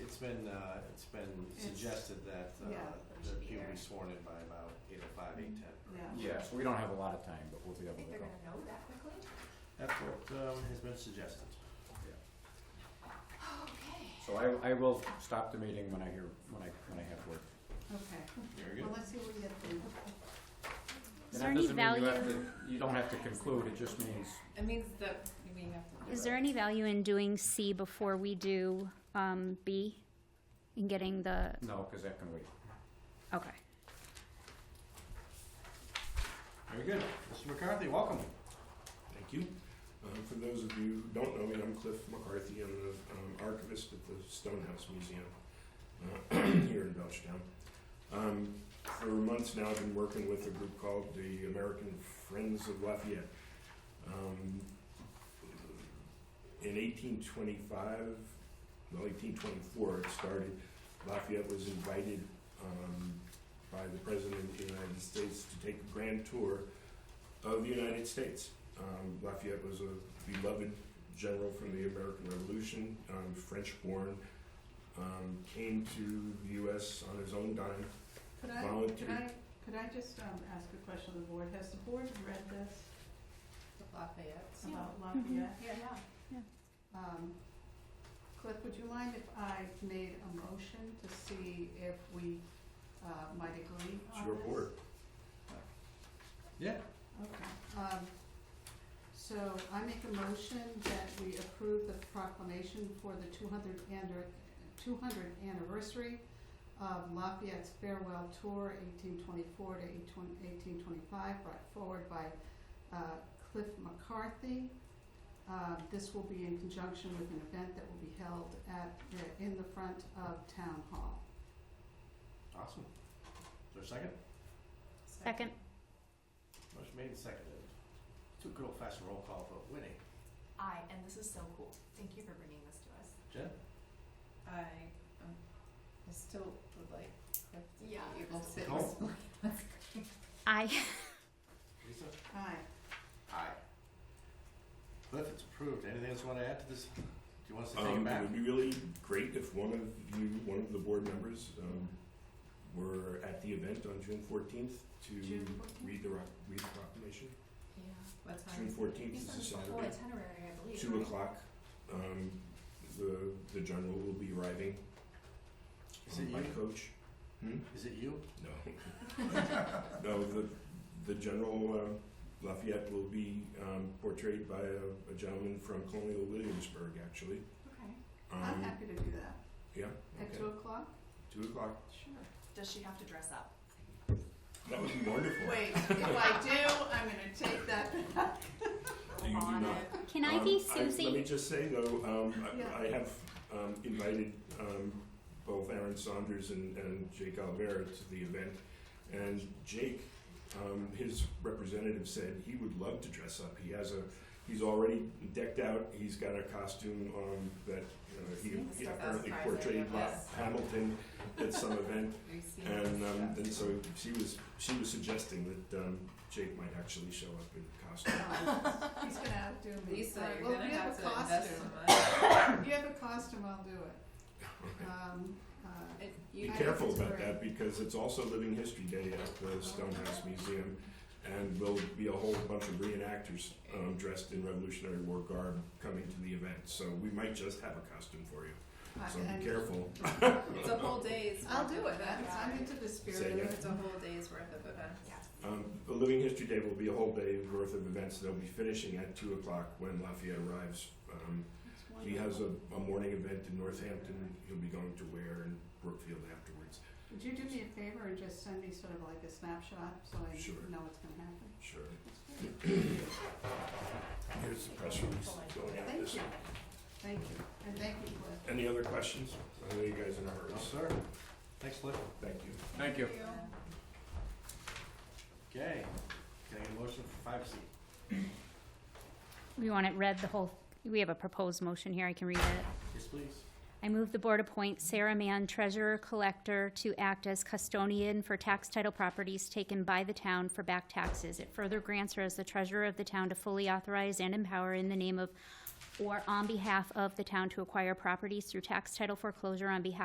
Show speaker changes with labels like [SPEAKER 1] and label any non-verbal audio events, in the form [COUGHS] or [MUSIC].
[SPEAKER 1] been, uh, it's been
[SPEAKER 2] It's-
[SPEAKER 1] suggested that, uh,
[SPEAKER 2] yeah, that it should
[SPEAKER 1] that
[SPEAKER 2] be
[SPEAKER 1] people be
[SPEAKER 2] there.
[SPEAKER 1] sworn in by about eight oh five, eight ten.
[SPEAKER 2] Yeah.
[SPEAKER 3] Yeah, so we don't have a lot of time, but we'll be
[SPEAKER 4] I
[SPEAKER 3] able
[SPEAKER 4] think
[SPEAKER 3] to
[SPEAKER 4] they're
[SPEAKER 3] go.
[SPEAKER 4] gonna know that quickly.
[SPEAKER 2] Mm-hmm.
[SPEAKER 1] That's what, um, has been suggested.
[SPEAKER 4] Okay.
[SPEAKER 3] So I, I will stop the meeting when I hear, when I, when I have word.
[SPEAKER 2] Okay,
[SPEAKER 1] Very
[SPEAKER 2] well,
[SPEAKER 1] good.
[SPEAKER 2] let's see what we get then.
[SPEAKER 5] Is
[SPEAKER 3] And
[SPEAKER 5] there
[SPEAKER 3] that
[SPEAKER 5] any
[SPEAKER 3] doesn't mean you have
[SPEAKER 5] value-
[SPEAKER 3] to- You don't have to conclude, it just means,
[SPEAKER 4] It means that we have to.
[SPEAKER 5] Is there any value in doing C before we do um, B? In getting the,
[SPEAKER 3] no, because that can wait.
[SPEAKER 5] okay.
[SPEAKER 1] Very good. Mr. McCarthy, welcome.
[SPEAKER 6] Thank you. Um, for those of you who don't know me, I'm Cliff McCarthy. I'm the um, archivist at the Stonehouse Museum uh, [CLEARS THROAT] here in Belchtown. Um, for months now, I've been working with a group called the American Friends of Lafayette. Um, in 1825, well, 1824, it started. Lafayette was invited um, by the President of the United States to take a grand tour of the United States. Um, Lafayette was a beloved general from the American Revolution, um, French born, um, came to the U.S. on his own dime.
[SPEAKER 2] Could I, could
[SPEAKER 6] Volunteer.
[SPEAKER 2] I, could I just, um, ask a question of the board? Has the board read this
[SPEAKER 4] Lafayette's. Yeah. Mm-hmm.
[SPEAKER 2] about Lafayette?
[SPEAKER 4] Yeah, yeah.
[SPEAKER 2] Um, Cliff, would you mind if I made a motion to see if we, uh, might agree on this?
[SPEAKER 6] It's your board.
[SPEAKER 1] Yeah.
[SPEAKER 2] Okay, um, so I make a motion that we approve the proclamation for the two hundred and, two hundred anniversary of Lafayette's farewell tour eighteen twenty-four to eighteen twenty-five, brought forward by, uh, Cliff McCarthy. Uh, this will be in conjunction with an event that will be held at, the- in the front of Town Hall.
[SPEAKER 1] Awesome. Is there a second?
[SPEAKER 5] Second,
[SPEAKER 1] Motion made and seconded. Do a good old fashioned roll call vote. Winnie?
[SPEAKER 4] I, and this is so cool. Thank you for bringing this to us.
[SPEAKER 1] Jen?
[SPEAKER 4] I, um, I still would like Cliff to be able to.
[SPEAKER 1] Cool.
[SPEAKER 4] [LAUGHS]
[SPEAKER 5] I, [LAUGHS]
[SPEAKER 1] Lisa?
[SPEAKER 2] Aye.
[SPEAKER 1] Aye. Cliff, it's approved. Anything else you want to add to this? Do you want us to take it
[SPEAKER 6] Um, it
[SPEAKER 1] back?
[SPEAKER 6] would be really great if one of you, one of the board members, um, were at the event on June 14th to
[SPEAKER 2] June 14th?
[SPEAKER 6] read the roc- read the proclamation.
[SPEAKER 4] Yeah, what time?
[SPEAKER 6] June 14th
[SPEAKER 4] He's
[SPEAKER 6] is a
[SPEAKER 4] on the
[SPEAKER 6] Saturday.
[SPEAKER 4] full Oh, itinerary, I believe.
[SPEAKER 6] Two
[SPEAKER 4] right?
[SPEAKER 6] o'clock. Um, the the general will be arriving.
[SPEAKER 1] Is it
[SPEAKER 6] um, by
[SPEAKER 1] you?
[SPEAKER 6] coach? Hmm?
[SPEAKER 1] Is it you?
[SPEAKER 6] No. [LAUGHS] no, the, the general um, Lafayette will be um, portrayed by a, a gentleman from Colonial Williamsburg, actually.
[SPEAKER 4] Okay.
[SPEAKER 2] I'm
[SPEAKER 6] Um,
[SPEAKER 2] happy to do that.
[SPEAKER 6] yeah,
[SPEAKER 2] At two
[SPEAKER 6] okay.
[SPEAKER 2] o'clock?
[SPEAKER 6] Two o'clock.
[SPEAKER 2] Sure.
[SPEAKER 4] Does she have to dress up?
[SPEAKER 6] That would be wonderful.
[SPEAKER 2] Wait, if I do, I'm gonna take that back.
[SPEAKER 6] Do you do
[SPEAKER 4] Bonnet.
[SPEAKER 6] not?
[SPEAKER 5] can
[SPEAKER 6] Um,
[SPEAKER 5] I be
[SPEAKER 6] Let me
[SPEAKER 5] Susie?
[SPEAKER 6] just say though, um,
[SPEAKER 2] Yeah.
[SPEAKER 6] I, I have um, invited um, both Aaron Saunders and, and Jake Olivera to the event, and Jake, um, his representative said he would love to dress up. He has a, he's already decked out. He's got a costume um, that you know,
[SPEAKER 4] Seen
[SPEAKER 6] he, he
[SPEAKER 4] stuff
[SPEAKER 6] apparently
[SPEAKER 4] outside,
[SPEAKER 6] portrayed
[SPEAKER 4] I
[SPEAKER 6] La-
[SPEAKER 4] guess.
[SPEAKER 6] Hamilton at some
[SPEAKER 5] [LAUGHS]
[SPEAKER 6] event,
[SPEAKER 4] We've seen
[SPEAKER 6] and
[SPEAKER 4] this
[SPEAKER 6] um,
[SPEAKER 4] stuff.
[SPEAKER 6] and so she was she was suggesting that um, Jake might actually show up in costume.
[SPEAKER 2] He's gonna outdo me.
[SPEAKER 4] Lisa,
[SPEAKER 2] Alright,
[SPEAKER 4] you're
[SPEAKER 2] well,
[SPEAKER 4] gonna
[SPEAKER 2] if you
[SPEAKER 4] have
[SPEAKER 2] a
[SPEAKER 4] to invest
[SPEAKER 2] costume-
[SPEAKER 4] some money.
[SPEAKER 2] If [COUGHS] you have a costume, I'll do it.
[SPEAKER 5] Oh,
[SPEAKER 2] Um, uh,
[SPEAKER 4] It-
[SPEAKER 6] Be
[SPEAKER 4] you-
[SPEAKER 2] I
[SPEAKER 6] careful
[SPEAKER 2] think it's
[SPEAKER 6] about
[SPEAKER 2] great.
[SPEAKER 6] that because it's also Living History Day at the Stonehouse Museum, and there'll be a whole bunch of reenactors um, dressed in Revolutionary War garb coming to the event. So we might just have a costume for you.
[SPEAKER 2] I-
[SPEAKER 6] So
[SPEAKER 2] and-
[SPEAKER 6] be careful.
[SPEAKER 2] [LAUGHS]
[SPEAKER 4] It's a whole day's.
[SPEAKER 2] I'll
[SPEAKER 4] worth
[SPEAKER 2] do
[SPEAKER 4] of
[SPEAKER 2] it, that's,
[SPEAKER 4] events.
[SPEAKER 2] I'm into the
[SPEAKER 6] Say
[SPEAKER 2] spirit
[SPEAKER 6] again?
[SPEAKER 2] of
[SPEAKER 4] It's a whole day's worth of events.
[SPEAKER 2] Yes.
[SPEAKER 6] Um, the Living History Day will be a whole day worth of events. They'll be finishing at two o'clock when Lafayette arrives. Um, he has a, a morning event in Northampton. He'll be going to Ware and Brookfield afterwards.
[SPEAKER 2] Would you do me a favor and just send me sort of like a snapshot so I
[SPEAKER 6] Sure.
[SPEAKER 2] know what's gonna happen?
[SPEAKER 6] Sure. [CLEARS THROAT]
[SPEAKER 2] That's great.
[SPEAKER 6] Here's the press release going out
[SPEAKER 2] Thank
[SPEAKER 6] this.
[SPEAKER 2] you, thank you, and thank you, Cliff.
[SPEAKER 6] Any other questions? I know you guys are in a hurry.
[SPEAKER 1] No, sir. Thanks, Cliff.
[SPEAKER 6] Thank you.
[SPEAKER 3] Thank you.
[SPEAKER 1] Okay. Can I get a motion for five C?
[SPEAKER 5] We want it read the whole, we have a proposed motion here, I can read it.
[SPEAKER 1] Yes, please.
[SPEAKER 5] I move the board appoint Sarah Mann, treasurer collector, to act as custodian for tax title properties taken by the town for back taxes. It further grants her as the treasurer of the town to fully authorize and empower in the name of or on behalf of the town to acquire properties through tax title foreclosure on behalf